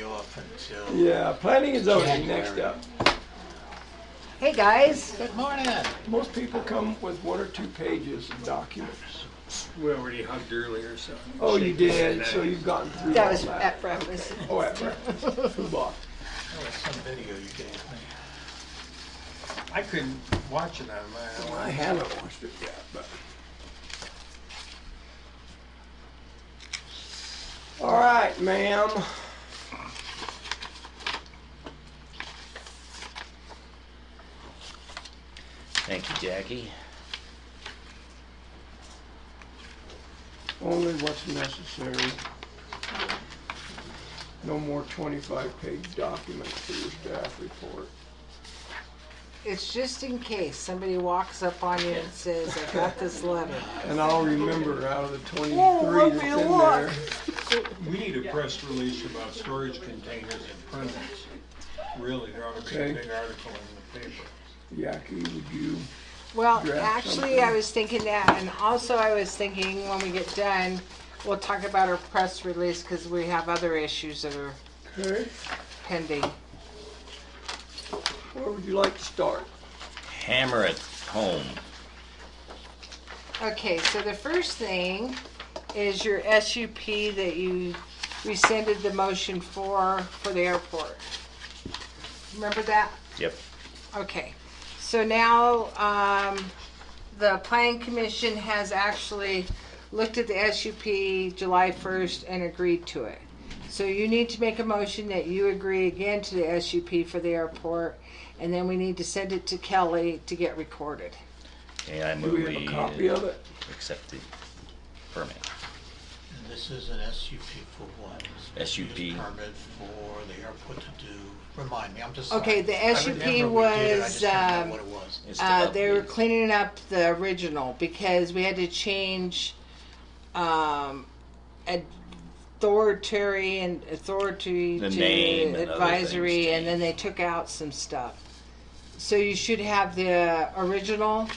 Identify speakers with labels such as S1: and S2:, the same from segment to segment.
S1: off until.
S2: Yeah, planning and zoning, next
S1: January.
S2: up.
S3: Hey, guys.
S1: Good morning.
S2: Most people come with one or two pages of documents.
S4: We already hugged earlier, so.
S2: Oh, you did, so you've gotten through
S3: That
S2: all
S3: was
S2: that.
S3: at breakfast.
S2: Oh, at breakfast, food off.
S1: That was some video you gave me.
S4: I couldn't watch it on my
S2: I haven't watched it yet, but. All right, ma'am.
S5: Thank you, Jackie.
S2: Only what's necessary. No more twenty-five page documents for your staff report.
S3: It's just in case somebody walks up on you and says, I got this letter.
S2: And I'll remember out of the
S3: let
S2: twenty-three
S3: me
S2: that's in
S3: look.
S2: there.
S4: We need a press release about storage containers and printers. Really, there ought to be
S2: Okay.
S4: a big article in the paper.
S2: Yaki, would you,
S3: Well,
S2: Draft
S3: actually,
S2: something.
S3: I was thinking that, and also I was thinking when we get done, we'll talk about our press release because we have other issues that are
S2: okay,
S3: pending.
S2: where would you like to start?
S5: Hammer it home.
S3: Okay, so the first thing is your SUP that you rescinded the motion for, for the airport. Remember that?
S5: Yep.
S3: Okay, so now, um, the planning commission has actually looked at the SUP July first and agreed to it. So you need to make a motion that you agree again to the SUP for the airport, and then we need to send it to Kelly to get recorded.
S5: And I
S2: Do
S5: move
S2: we have a copy of it?
S5: accept the permit.
S1: And this is an SUP for what? It's a
S5: SUP.
S1: use Permit for the airport to do, remind me, I'm just. sorry.
S3: Okay, the
S1: I
S3: SUP
S1: remember we did it, I
S3: was,
S1: just didn't know
S3: um,
S1: What it was.
S5: It's to
S3: Uh, they were
S5: update.
S3: cleaning up the original because we had to change um, authority and authority
S5: The
S3: to
S5: name and other
S3: advisory,
S5: things
S3: and then they took out some stuff. So you should have the original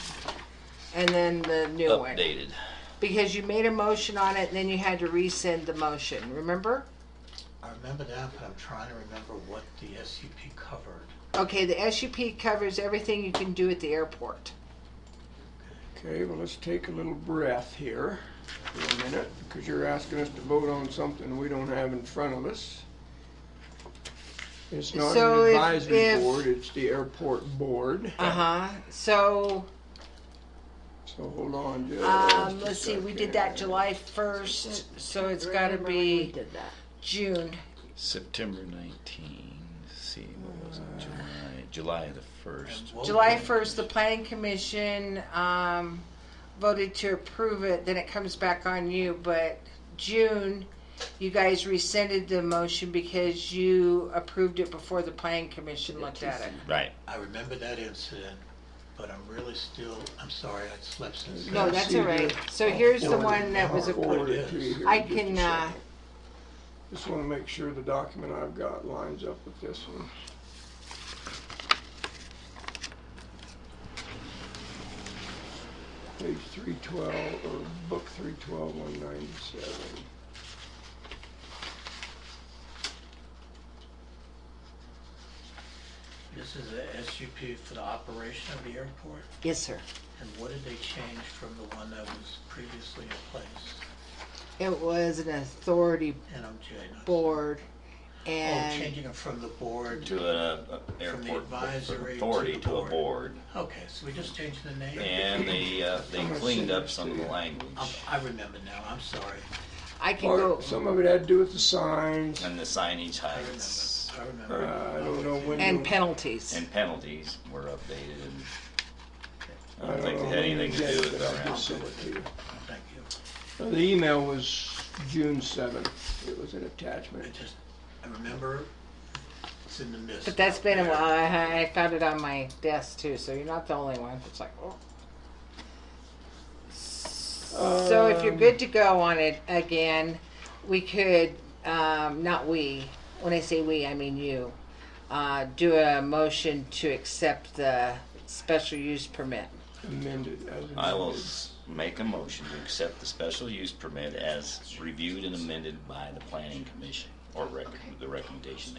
S3: and then the new one
S5: updated.
S3: because you made a motion on it, and then you had to rescind the motion. Remember?
S1: I remember that, but I'm trying to remember what the SUP covered.
S3: Okay, the SUP covers everything you can do at the airport.
S2: Okay, well, let's take a little breath here for a minute, because you're asking us to vote on something we don't have in front of us. It's not
S3: So
S2: an
S3: if-
S2: advisory
S3: if-
S2: board, it's the airport board,
S3: Uh huh. So.
S2: so hold on just
S3: Um,
S2: a
S3: let's see, we did that
S2: second.
S3: July first, so it's gotta be June.
S5: September 19. Let's see, what was it? July, July the 1st.
S1: And what
S3: July
S1: we-
S3: first, the planning commission, um, voted to approve it, then it comes back on you, but June, you guys rescinded the motion because you approved it before the planning commission looked at it.
S5: Right.
S1: I remember that incident, but I'm really still, I'm sorry, I slept since.
S3: No,
S1: then.
S3: that's all right. So here's the one that was
S2: Forward
S3: approved.
S2: it to you here
S3: I
S2: in just a
S3: can, uh,
S2: second. Just wanna make sure the document I've got lines up with this one. Page three twelve, or book three twelve, one ninety-seven.
S1: This is a SUP for the operation of the airport,
S3: yes, sir.
S1: and what did they change from the one that was previously in place?
S3: It was an authority
S1: And I'm Jane.
S3: board
S1: Oh,
S3: and.
S1: changing it from the board,
S5: To an uh,
S1: From the
S5: airport
S1: advisory to
S5: authority
S1: the
S5: to a
S1: board.
S5: board.
S1: okay, so we just changed the name?
S5: And they, uh, they
S2: I'm gonna
S5: cleaned
S2: send
S5: up
S2: this
S5: some
S2: to
S5: of the
S2: you.
S5: language
S1: I'm- I remember now, I'm sorry,
S3: I can go.
S2: Part, some of it had to do with the signs,
S5: and the signage
S1: I
S5: heights
S1: remember, I remember.
S2: Uh, I don't know when-
S3: And penalties.
S5: and penalties were updated and I
S2: I
S5: don't
S2: don't
S5: think
S2: know
S5: they had
S2: when you
S5: anything to
S2: get
S5: do
S2: it,
S5: with
S2: but
S5: it
S2: I
S5: around.
S2: just sent it to you.
S1: Thank you.
S2: Uh, The email was June seventh, it was an
S1: I
S2: attachment.
S1: just, I remember it's in the mist.
S3: But that's been a while. I, I found it on my desk too, so you're not the only one. It's like, oh. So if you're
S2: Um,
S3: good to go on it again, we could, um, not we, when I say we, I mean you, uh, do a motion to accept the special use permit.
S2: amended as
S5: I will
S2: amended.
S5: s- make a motion to accept the special use permit as reviewed and amended by the planning commission, or rec- the recommendation